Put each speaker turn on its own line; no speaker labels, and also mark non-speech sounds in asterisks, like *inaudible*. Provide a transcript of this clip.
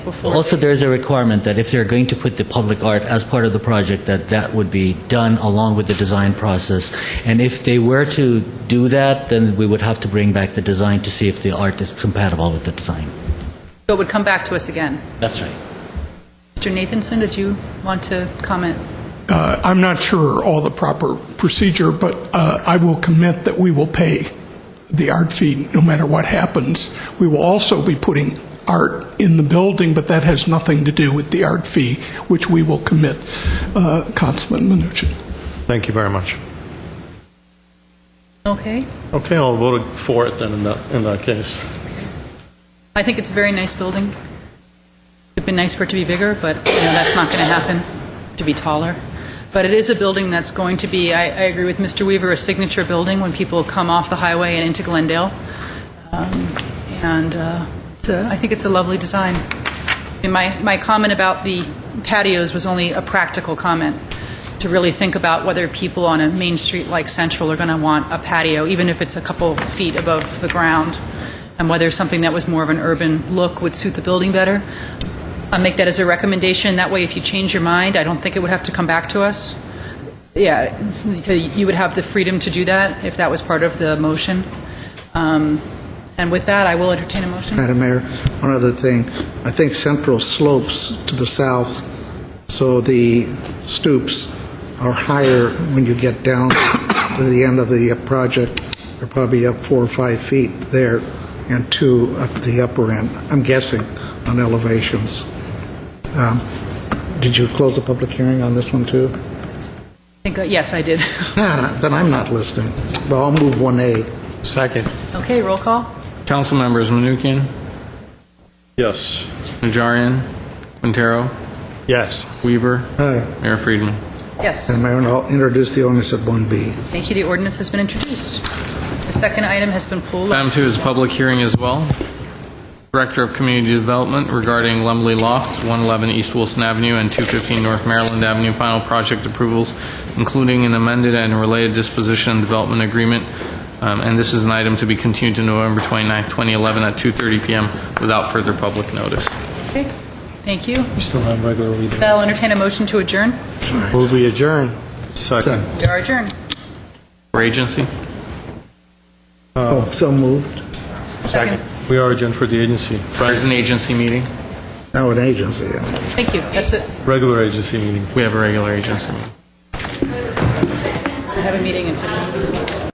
before.
Also, there's a requirement that if they're going to put the public art as part of the project, that that would be done along with the design process. And if they were to do that, then we would have to bring back the design to see if the art is compatible with the design.
So it would come back to us again.
That's right.
Mr. Nathanson, did you want to comment?
Uh, I'm not sure all the proper procedure, but uh, I will commit that we will pay the art fee no matter what happens. We will also be putting art in the building, but that has nothing to do with the art fee, which we will commit, uh, Councilman Mnuchin.
Thank you very much.
Okay.
Okay, I'll vote for it then in that, in that case.
I think it's a very nice building. It'd been nice for it to be bigger, but you know, that's not going to happen, to be taller. But it is a building that's going to be, I, I agree with Mr. Weaver, a signature building when people come off the highway and into Glendale. Um, And uh, it's a, I think it's a lovely design. And my, my comment about the patios was only a practical comment, to really think about whether people on a main street like Central are going to want a patio, even if it's a couple feet above the ground, and whether something that was more of an urban look would suit the building better. I'll make that as a recommendation. That way, if you change your mind, I don't think it would have to come back to us. Yeah, it's- you would have the freedom to do that if that was part of the motion. Um, And with that, I will entertain a motion.
Madam Mayor, one other thing. I think Central slopes to the south, so the stoops are higher when you get down to the end of the project. They're probably up four or five feet there and two up the upper end, I'm guessing, on elevations. Um, Did you close the public hearing on this one, too?
I think, uh, Yes, I did. *laughs*
Nah, Uh, Then I'm not listening. Well, I'll move 1A.
Second.
Okay, roll call.
Council members Manukian,
Yes.
Najarian, Quintero,
Yes.
Weaver,
Aye.
Mayor Friedman.
Yes.
Madam Mayor, and I'll introduce the ordinance at 1B.
Thank you. The ordinance has been introduced. The second item has been pulled.
Item two is a public hearing as well. Director of Community Development regarding Lumley Lofts, 111 East Wilson Avenue and 215 North Maryland Avenue, final project approvals, including an amended and related disposition and development agreement. Um, And this is an item to be continued to November 29, 2011 at 2:30 PM without further public notice.
Okay. Thank you.
We still have regular reading.
I'll entertain a motion to adjourn.
Move we adjourn. Second.
We are adjourned.
For agency?
Oh, so moved.
Second.
We are adjourned for the agency,
There's an agency meeting.
Now an agency, yeah.
Thank you. That's it.
regular agency meeting.
We have a regular agency meeting.
We have a meeting in 15